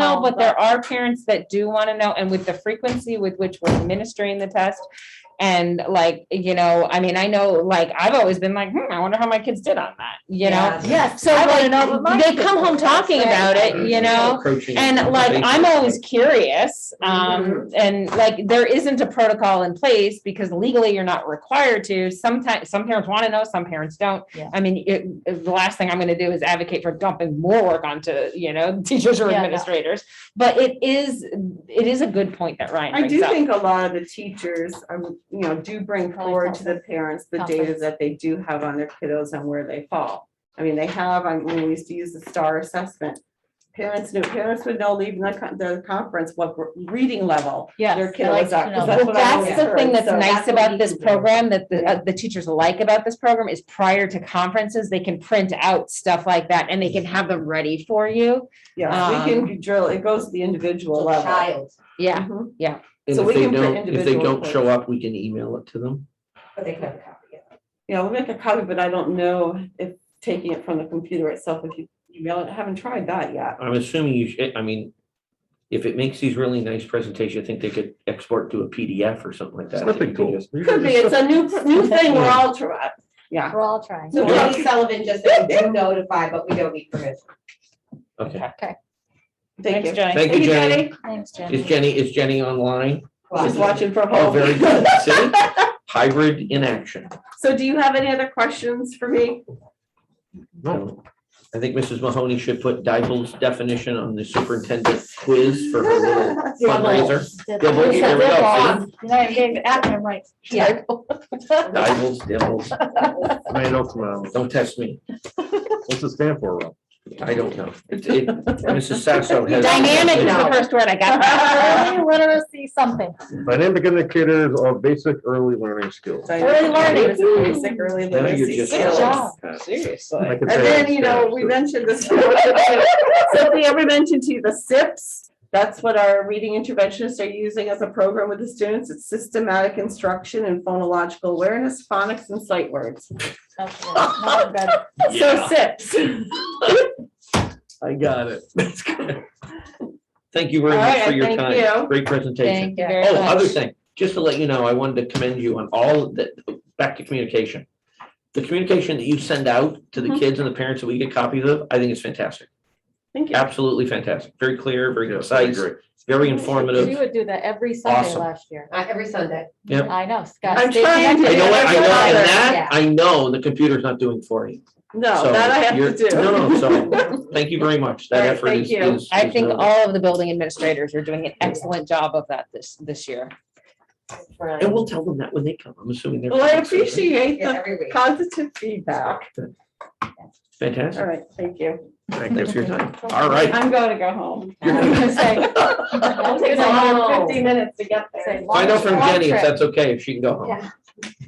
all, but there but- are parents that do want to know, and with the frequency with which we're administering the test. And like, you know, I mean, I know, like, I've always been like, hmm, I wonder how my kids did on that, you know? Yes. So I wanna like, know what my they kids come home did. That's talking right. about it, you know? Approaching And like, I'm information. always curious, Mm-hmm. um, and like, there isn't a protocol in place because legally you're not required to. Sometimes, some parents want to know, some parents don't. Yeah. I mean, it, it- the last thing I'm gonna do is advocate for dumping more work onto, you know, teachers or Yeah, yeah. administrators. But it is, it is a good point that Ryan I do brings up. think a lot of the teachers, um, you know, do bring forward to the parents the data Conference. that they do have on their kiddos and where they fall. I mean, they have, I mean, we used to use the star assessment. Parents knew, parents would know leaving the, con- the conference, what reading level Yes, their I kid like was to at. 'cause know. that's Well, what I that's the always thing heard, that's so nice that's what about we this do. program, that the, Yeah. uh, the teachers like about this program is prior to conferences, they can print out stuff like that and they can have them ready for you. Yeah, we can drill, it goes to the individual level. Child, Yeah, Mhm. And so if we they can put don't, if they individual don't show up, we can email it to them. but they could have a copy of it. Yeah, we'll make a copy, but I don't know if taking it from the computer itself, if you email it, I haven't tried that yet. I'm assuming you should, I mean, if it makes these really nice presentations, I think they could export to a PDF or something like that. Snipping tool. Could be, it's a new, new thing we're all trying, yeah. We're all trying. So Tony Sullivan just said, we do notify, but we don't need permission. Okay, Thank you. Thanks, Jenny. thank you, Jenny. Thanks, Jenny. Is Jenny, is Jenny online? She's watching from Oh, home. very good. See? Hybrid in action. So do you have any other questions for me? No, So, I think Mrs. Mahoney should put Dible's definition on the superintendent quiz for her little fundraiser. Dibble, there we go. see? No, you gave it acronym right. Yeah. Dibbles, dibbles. I know come on. Don't test me. What's it stand for, Rob? I don't know. It- it- Mrs. Saxon has. Dynamic is the first word I got. Early literacy something. Dynamic indicators of basic early learning skills. Early learning. Basic early Now you're literacy just- skills. job. I Seriously. can say And then, it's you know, stand we for- mentioned this. Sophie ever mentioned to you the SIPs? That's what our reading interventionists are using as a program with the students. It's systematic instruction and phonological awareness, phonics and sight words. That's good. Nothing better. So Yeah. SIPs. I got it. That's good. Thank you very All much right, for your thank you. time. Great presentation. Thank you Oh, very other much. thing, just to let you know, I wanted to commend you on all the, back to communication. The communication that you send out to the Mhm. kids and the parents that we get copies of, I think is fantastic. Thank you. Absolutely fantastic. Very clear, very Yeah, I concise, agree. very She informative. would do that every Sunday Awesome. last year. Uh, every Sunday. Yep. I know, Scott. I'm stay trying to I connected. know, what- I know, and Yeah. that, I know the computer's not doing for you. So No, that I you're- have to do. No, no, so, thank you very much. That All right, effort thank is. you. is- I is think noted. all of the building administrators are doing an excellent job of that this, this year. And we'll tell them that when they come. I'm assuming they're. Well, I coming soon, right? appreciate Yeah, the every week. positive feedback. All Fantastic. right, thank you. Thanks for your time. All right. I'm going to go home. You're I was gonna say, It takes another fifty minutes to get there. say, Find out from long Jenny if trip. that's okay, if she can go home.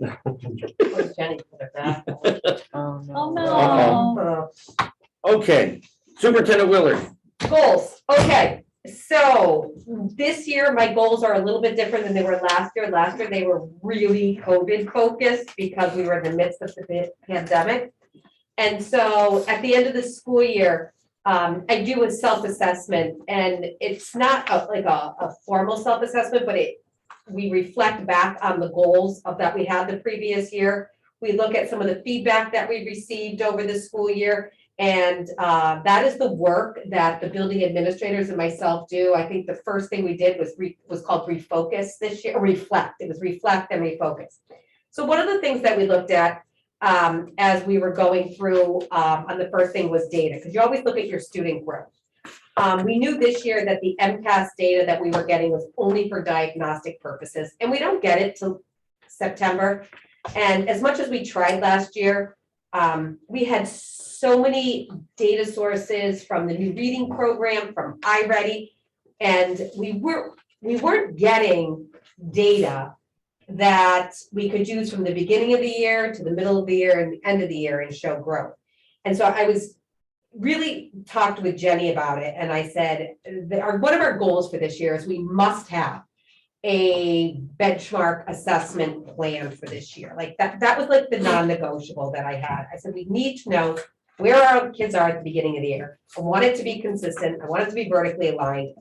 Yeah. Where's Jenny? Oh, Oh, no. Uh-huh. Okay, Superintendent Willard. Goals, okay, so this year, my goals are a little bit different than they were last year. Last year, they were really COVID focused because we were in the midst of the pa- pandemic. And so at the end of the school year, um, I do a self-assessment and it's not a- like a, a formal self-assessment, but it, we reflect back on the goals of that we had the previous year. We look at some of the feedback that we received over the school year and uh, that is the work that the building administrators and myself do. I think the first thing we did was re, was called refocus this year, or reflect. It was reflect and refocus. So one of the things that we looked at um, as we were going through, um, on the first thing was data, because you always look at your student growth. Um, we knew this year that the MCAS data that we were getting was only for diagnostic purposes, and we don't get it till September. And as much as we tried last year, um, we had so many data sources from the new reading program, from iReady. And we were, we weren't getting data that we could use from the beginning of the year to the middle of the year and the end of the year and show growth. And so I was really talked with Jenny about it and I said, that our, one of our goals for this year is we must have a benchmark assessment plan for this year. Like that, that was like the non-negotiable that I had. I said, we need to know where our kids are at the beginning of the year. I want it to be consistent. I want it to be vertically aligned.